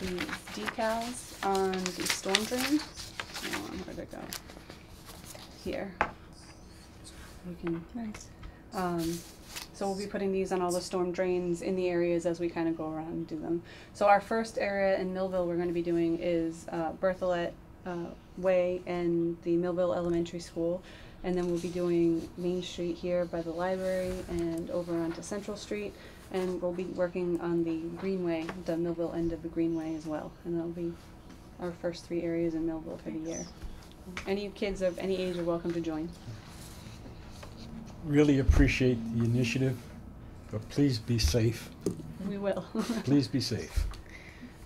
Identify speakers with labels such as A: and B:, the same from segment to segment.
A: these decals on the storm drain. Hold on, where'd it go? Here. We can,
B: Nice.
A: um, so we'll be putting these on all the storm drains in the areas as we kind of go around and do them. So our first area in Millville we're gonna be doing is, uh, Bertholet, uh, Way and the Millville Elementary School. And then we'll be doing Main Street here by the library and over onto Central Street. And we'll be working on the Greenway, the Millville end of the Greenway as well. And that'll be our first three areas in Millville for the year. Any kids of any age are welcome to join.
C: Really appreciate the initiative, but please be safe.
A: We will.
C: Please be safe.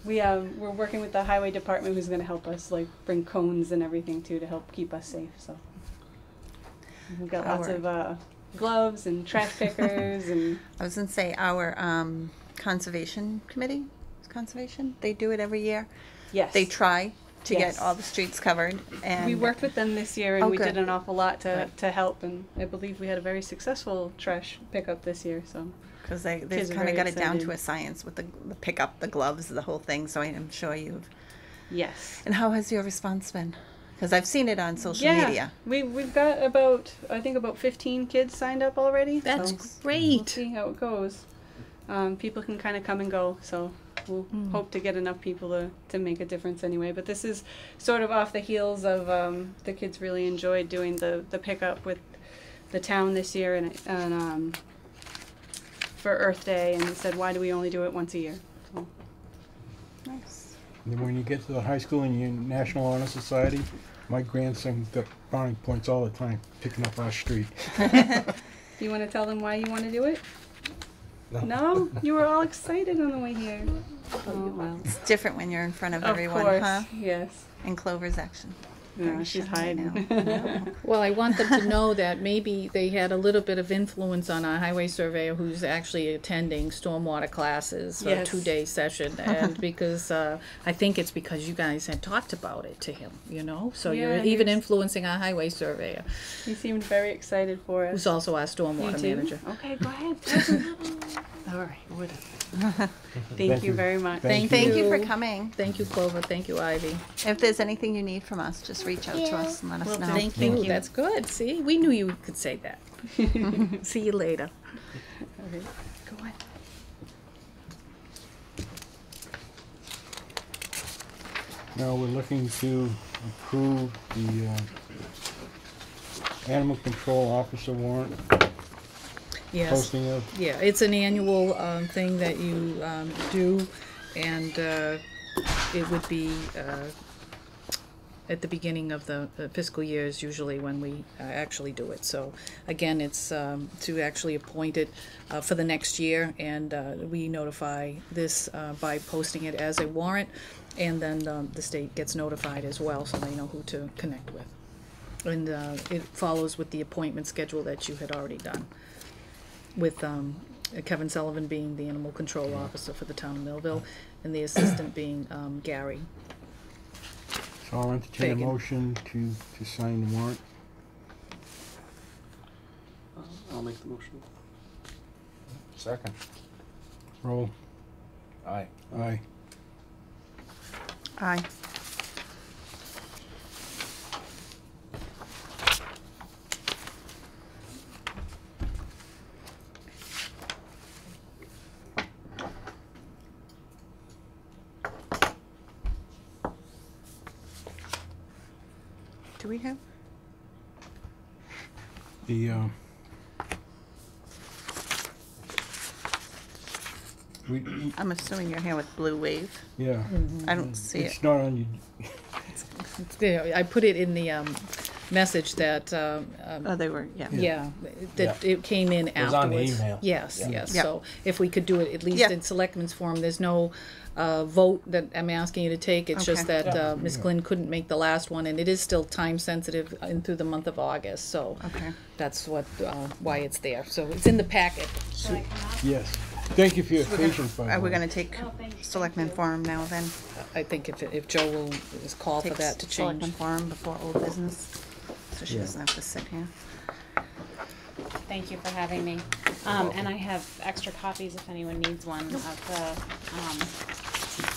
A: We um we're working with the highway department who's gonna help us like bring cones and everything too to help keep us safe, so. We've got lots
B: Our-
A: of uh gloves and trash pickers and
B: I was gonna say our um, conservation committee, is conservation. They do it every year.
A: yes.
B: They try to
A: Yes.
B: get all the streets covered, and
A: We worked with them this year and
B: Oh,
A: we did
B: good.
A: an awful lot to
B: Right.
A: to help and I believe we had a very successful trash pickup this year, so.
B: because they they've
A: Kids are
B: kind of
A: very
B: got it down
A: excited.
B: to a science with the, the pickup, the gloves, the whole thing. So I'm sure you've.
A: Yes.
B: And how has your response been? Because I've seen it on social
A: yeah,
B: media.
A: We we've got about I think about fifteen kids signed up already.
D: That's
A: so We'll
D: great.
A: see how it goes. Um, people can kind of come and go, so we'll
B: Mm.
A: hope to get enough people to, to make a difference anyway. But this is sort of off the heels of um, the kids really enjoyed doing the, the pickup with the town this year and, and um, for Earth Day and said, why do we only do it once a year? So,
B: Nice.
C: And then when you get to the high school and your National Honor Society, my grandson got brownie points all the time picking up our street.
A: do you want to tell them why you want to do it? No? You were all excited on the way here. Oh, well.
B: It's different when you're in front of,
A: Of
B: everyone,
A: course,
B: huh?
A: yes.
B: And Clover's action.
A: Yeah,
B: Very
A: she's
B: shy
A: hiding.
B: now. I know.
D: Well, I want them to know that maybe they had a little bit of influence on our highway surveyor who's actually attending stormwater classes for a
A: Yes.
D: two-day session. And because, uh, I think it's because you guys had talked about it to him, you know? So
A: Yeah,
D: you're
A: he
D: even
A: was-
D: influencing our highway surveyor,
A: He seemed very excited for us.
D: who's also our
A: You
D: stormwater
A: do?
D: manager.
A: Okay, go ahead. All right, whatever. Thank you
C: you.
A: very much.
C: Thank
B: Thank you for
D: you.
B: coming.
D: Thank you, Clover. Thank you, Ivy.
B: If there's anything you need from us, just reach out to us and let us
A: Will
B: know.
A: do. Thank
D: Ooh,
A: you.
D: That's good. See, we knew you could say that. See you later.
A: Go on.
C: Now we're looking to approve the uh, animal control officer warrant,
D: Yes.
C: posting of
D: Yeah, it's an annual um, thing that you um, do, and uh, it would be uh, at the beginning of the the fiscal year is usually when we uh, actually do it. So again, it's um, to actually appoint it uh, for the next year, and uh, we notify this uh, by posting it as a warrant, and then um, the state gets notified as well, so they know who to connect with. And uh, it follows with the appointment schedule that you had already done with um, Kevin Sullivan being the animal control officer for the town of Millville, and the assistant being um, Gary.
C: So I'll entertain a
D: Bacon.
C: motion to, to sign the warrant.
E: I'll make the motion.
F: Second.
C: Roll.
F: Aye.
C: Aye.
B: Aye. Do we have?
C: The, uh, we,
B: I'm assuming you're here with Blue Wave.
C: yeah.
B: I don't see it.
C: It's not on you,
D: Yeah, I put it in the um, message that, um, um,
B: Oh, they were, yeah.
D: yeah, that
F: Yeah.
D: it came in
F: was on the
D: afterwards.
F: email.
D: Yes,
F: Yeah.
D: yes,
B: Yeah.
D: so if we could do it at least
B: Yeah.
D: in selectmen's form, there's no uh, vote that I'm asking you to take, it's just
B: Okay.
D: that uh, Ms. Glenn couldn't make the last one, and it is still time-sensitive in through the month of August, so
B: Okay.
D: that's what, uh, why it's there, so it's in the packet.
C: yes. Thank you for your patience, by
B: Are
C: the
B: we
C: way.
B: gonna take Selectman Forum now then?
D: I think if, if Joe will is call for
B: Take
D: that to
B: Selectman
D: change.
B: Forum before old business, so she doesn't have to sit here.
G: Thank you for having me. Um, and I have extra copies if anyone needs one of the, um,